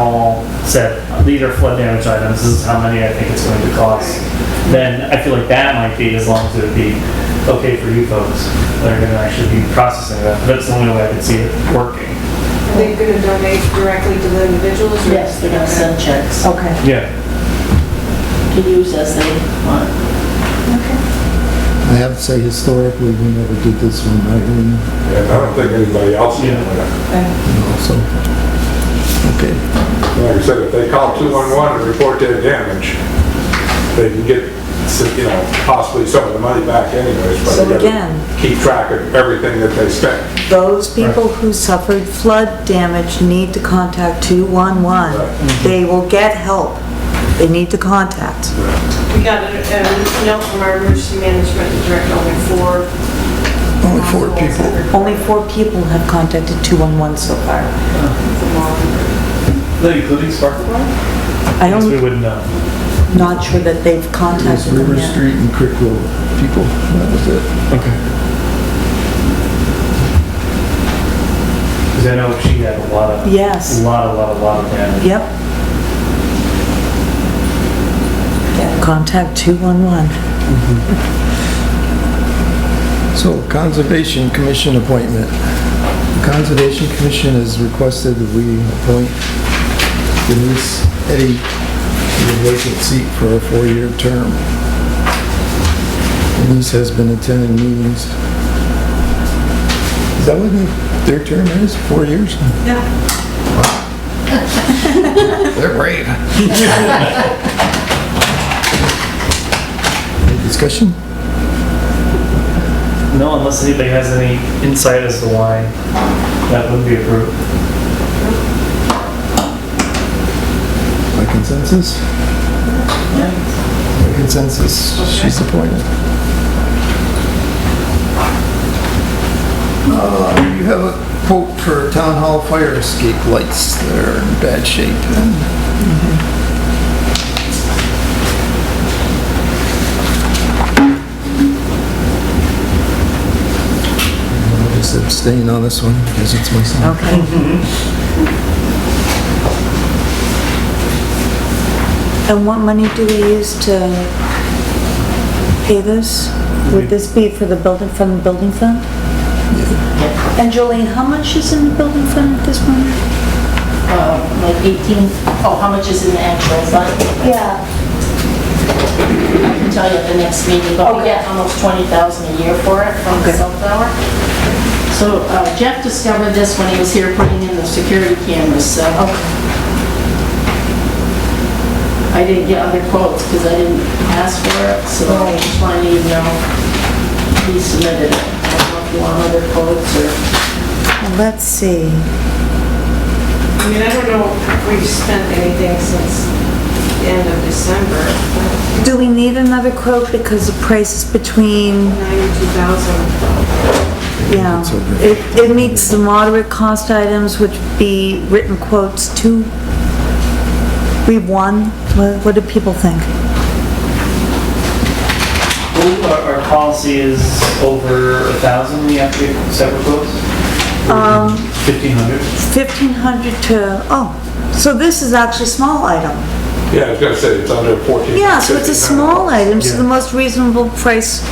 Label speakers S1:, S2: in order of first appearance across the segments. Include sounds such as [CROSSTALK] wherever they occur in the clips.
S1: hall said, these are flood damage items, this is how many I think it's going to cost, then I feel like that might be, as long as it would be okay for you folks that are gonna actually be processing that. That's the only way I could see it working.
S2: Are they gonna donate directly to the individuals? or-
S3: Yes, they're gonna send checks
S4: Okay.
S1: Yeah.
S3: to use as they want.
S5: I have to say historically, we never did this one, right? We-
S6: And I don't think anybody else, did. like
S5: no, So, okay.
S6: I said, if they call 211 and report their damage, they can get, you know, possibly some of the money back anyways, but
S4: So
S6: they
S4: again-
S6: gotta keep track of everything that they spent.
S4: Those people who suffered flood damage need to contact
S2: Mm-hmm.
S4: 211. They will get help. They need to contact.
S2: We got a a note from our emergency management director, only four.
S5: Only four people.
S4: Only four people have contacted 211 so far.
S1: That including sparkler
S4: I
S1: Yes,
S4: don't,
S1: we wouldn't know.
S4: not sure that they've
S5: It was
S4: contacted them
S5: River
S4: yet.
S5: Street and Creek Road people, that was it.
S1: Because I know she had a lot of, a
S4: Yes,
S1: lot, a lot, a lot of damage.
S4: yep. Contact 211.
S5: So Conservation Commission appointment. The Conservation Commission has requested that we appoint Denise Eddy to the vacant seat for a four-year term. Denise has been attending meetings. Is that what their term is, four years?
S2: Yeah.
S5: They're brave. [LAUGHS] Any discussion?
S1: No, unless anybody has any insight as to why that would be approved.
S5: By consensus? By consensus, she's appointed. Uh, You have a quote for town hall fire escape lights that are in bad shape. and I'll Just abstain on this one because it's my son.
S4: Okay. And what money do we use to pay this? Would this be for the building, from the building fund? And Jolene, how much is in the building fund at this point?
S3: Uh, Like 18, oh, how much is in the actual fund?
S4: Yeah.
S3: I can tell you at the next meeting, but we get almost 20,000 a year for it from the cell tower. So uh, Jeff discovered this when he was here putting in the security cameras, so. I didn't get other quotes because I didn't ask for it, so I just wanted you to know he submitted it. I don't know if you want other quotes or...
S4: Let's see.
S2: I mean, I don't know if we've spent anything since the end of December,
S4: Do we need another quote because the price is between,
S2: ninety-two thousand.
S4: yeah. It, it meets the moderate cost items, which be written quotes two. We won. What, what do people think?
S1: Well, Our, our policy is over a thousand, we have to get separate quotes? Fifteen hundred?
S4: 1,500 to, oh, so this is actually small item.
S6: Yeah, I was gonna say, it's under 14.
S4: Yeah, so it's a
S6: 1500.
S4: small item, so the
S1: Yeah.
S4: most reasonable price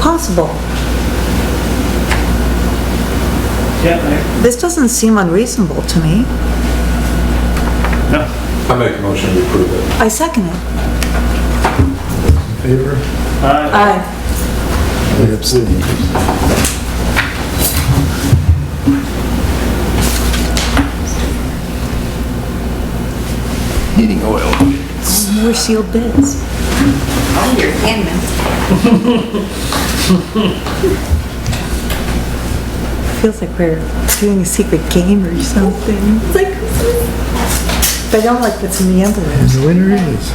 S4: possible.
S1: Yeah,
S4: This doesn't seem unreasonable to me.
S1: I- no.
S6: I make a motion to approve it.
S4: I second it.
S5: Favor?
S1: Uh,
S4: Aye.
S5: I abstain. Heating oil.
S4: More sealed bids. Feels like we're doing a secret game or something. It's like, but I don't like what's in the envelope.
S5: The winner is.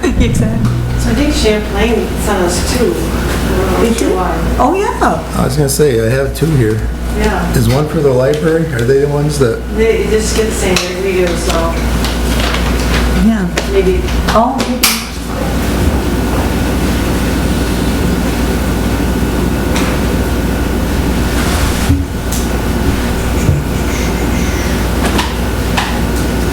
S4: [LAUGHS] Exactly.
S2: So I think Champlain sent us two. uh, I
S4: They
S2: don't
S4: did.
S2: know why.
S4: Oh, yeah.
S5: I was gonna say, I have two here.
S2: Yeah,
S5: Is one for the library? Are they the ones that,
S2: they it just get the same every year, so
S4: Yeah.
S2: maybe
S4: Oh,